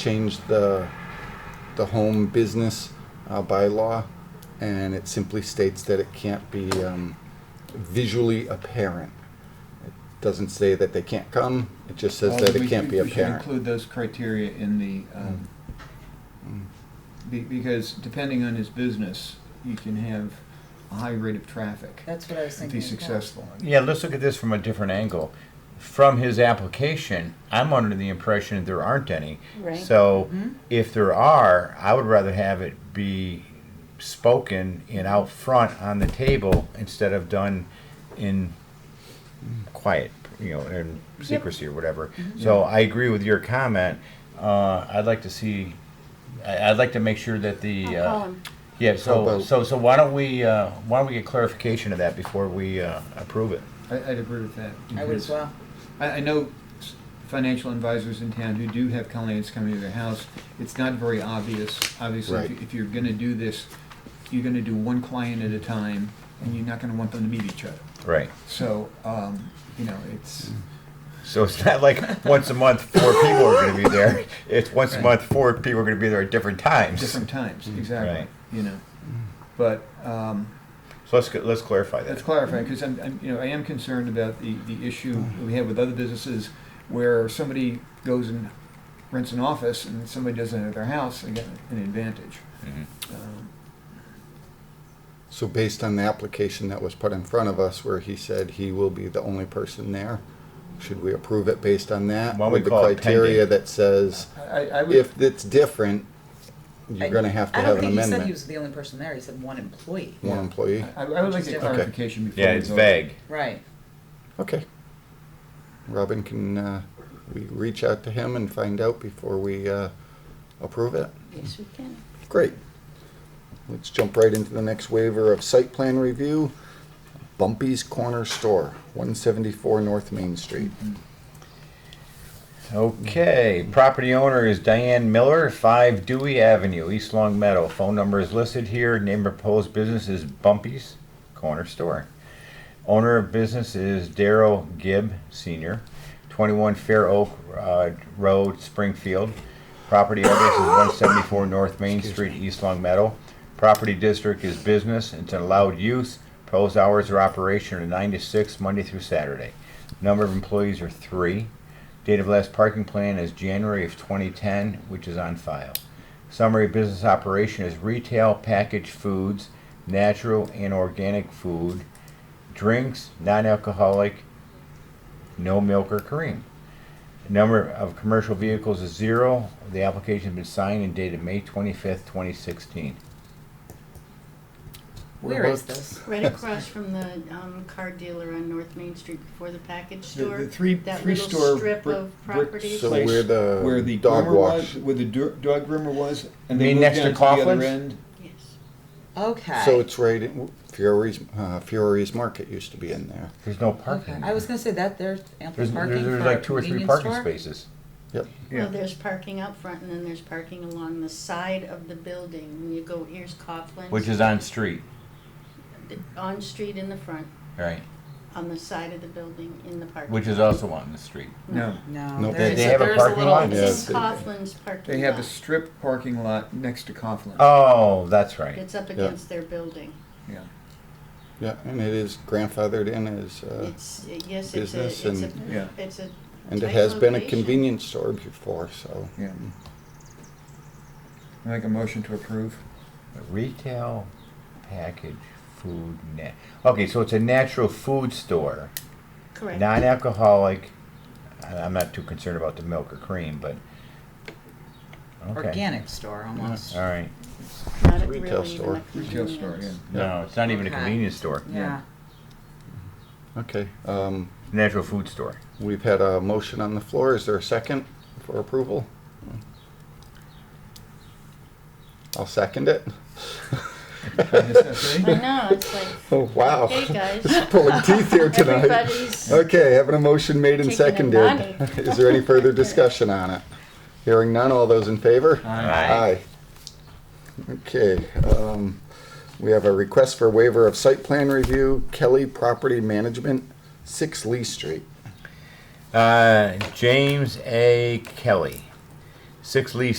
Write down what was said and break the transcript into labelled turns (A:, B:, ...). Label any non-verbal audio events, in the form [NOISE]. A: change the, the home business uh, bylaw, and it simply states that it can't be um, visually apparent. It Doesn't say that they can't come, it just says
B: Well,
A: that
B: we-
A: it can't be
B: We should
A: apparent.
B: include those criteria in the, um, be- because depending on his business, you can have a high rate of traffic
C: That's what I was
B: if
C: thinking.
B: he's successful.
D: Yeah, let's look at this from a different angle. From his application, I'm under the impression there aren't any.
C: Right.
D: So
E: Mm-hmm.
D: if there are, I would rather have it be spoken and out front on the table instead of done in quiet, you know, in secrecy or whatever.
E: Mm-hmm.
D: So I agree with your comment. Uh, I'd like to see, I, I'd like to make sure that the,
E: I'll call
D: uh,
E: him.
D: yeah,
A: How
D: so,
A: about-
D: so, so why don't we, uh, why don't we get clarification of that before we, uh, approve it?
B: I, I'd agree with that.
C: I would as
B: because
C: well.
B: I, I know s- financial advisors in town who do have clients coming to their house. It's not very obvious. Obviously, if
A: Right.
B: you- if you're gonna do this, you're gonna do one client at a time, and you're not gonna want them to meet each other.
D: Right.
B: So, um, you know, it's,
A: Mm.
D: So it's not like once a month four people are going to be there. It's once a
B: Right.
D: month four people are going to be there at different times.
B: different times, exactly,
D: Mm, Right.
B: you know. But um,
D: So let's let's clarify
B: let's
D: that.
B: clarify, because I'm, I'm, you know, I am concerned about the, the issue we have with other businesses where somebody goes and rents an office and somebody does it at their house, they get an advantage. Um,
A: So based on the application that was put in front of us, where he said he will be the only person there, should we approve it based on that?
D: Why don't we
A: With the
D: call it
A: criteria
D: pending?
A: that says,
B: I, I would,
A: if it's different, you're gonna have to
C: I
A: have
C: don't
A: an
C: think he said he
A: amendment.
C: was the only person there. He said one employee.
A: One employee?
B: I I would like
C: Okay.
B: a clarification before we
D: Yeah, it's
B: vote.
D: vague.
C: Right.
A: Okay. Robin, can, uh, we reach out to him and find out before we, uh, approve it?
E: Yes, we can.
A: Great. Let's jump right into the next waiver of site plan review. Bumpy's Corner Store, one seventy-four North Main Street.
D: Okay. Property owner is Diane Miller, five Dewey Avenue, East Long Meadow. Phone number is listed here. Name of proposed business is Bumpy's Corner Store. Owner of business is Daryl Gibb Senior, 21 Fair Oak uh, Road, Springfield. Property address is 174 North Main Street, East Long Meadow. Property district is business, it's an allowed use. Proposed hours of operation are 9 to 6, Monday through Saturday. Number of employees are three. Date of last parking plan is January of 2010, which is on file. Summary of business operation is retail packaged foods, natural and organic food, drinks, non-alcoholic, no milk or cream. Number of commercial vehicles is zero. The application's been signed and dated May twenty-fifth, twenty sixteen.
C: Where is this?
E: Right across from the um, car dealer on North Main Street before the package
B: The-
E: store.
B: the three-
E: that
B: three
E: little
B: store
E: strip
B: brick-
E: of
B: brick
E: property.
A: So
B: place
A: where the
B: Where the
A: dog
B: groomer
A: wash-
B: was, where the do- dog groomer was, and
D: You
B: they
D: mean
B: moved
D: next
B: down
D: to
B: to the other
D: Coughlin's?
B: end.
E: Yes.
C: Okay.
A: So it's right in Fiore's, uh, Fiore's Market used to be in there.
D: There's no
C: okay.
D: parking.
C: I was gonna say that there's ample
D: There's,
C: parking
D: there's there's
C: for a
D: like two or three
C: convenience
D: parking
C: store?
D: spaces.
A: Yep.
E: Well, there's parking out front and then there's parking along the side of the building. When you go, here's Coughlin's.
D: Which is on street,
E: On street in the front,
D: right?
E: on the side of the building, in the parking.
D: Which is
E: lot.
D: also on the street.
B: No,
C: No.
A: Nope.
C: there
A: They-
C: is
A: they
C: a-
D: have a
C: there's
D: parking
C: little-
D: lot?
E: It's
A: Yes.
E: in Coughlin's parking
B: they have a
E: lot.
B: strip parking lot next to Coughlin.
D: Oh, that's right.
E: It's up against their building.
B: Yeah.
A: Yeah, and it is grandfathered in as, uh,
E: It's, yes, it's a,
A: business
E: it's a,
A: and-
B: Yeah.
E: it's a.
A: and it
E: tight
A: has been a
E: location.
A: convenience store before, so.
B: Yeah. I Make a motion to approve.
D: Retail package food net. Okay, so it's a natural food store,
E: Correct.
D: non-alcoholic. I- I'm not too concerned about the milk or cream, but. okay.
C: Organic store almost.
D: All right.
E: Not a-
A: Retail
E: really even
A: store.
E: a
B: Retail store, yeah.
E: convenience.
D: No, it's not even a
C: Okay.
D: convenience store.
C: Yeah.
A: Okay, um,
D: Natural food store.
A: we've had a motion on the floor. Is there a second for approval? I'll second it. [LAUGHS]
E: I know, it's like,
A: Oh, [LAUGHS] wow. [LAUGHS]
E: hey, guys.
A: Just Pulling teeth here tonight.
E: Everybody's
A: Okay, having a motion made and
E: Taking a
A: seconded. [LAUGHS]
E: nap.
A: Is there any
E: [LAUGHS]
A: further discussion on it? Hearing none, all those in favor? Aye. Okay, um, we have a request for waiver of site plan review, Kelly Property Management, six Lee Street.
D: Uh, James A. Kelly, 6 Lee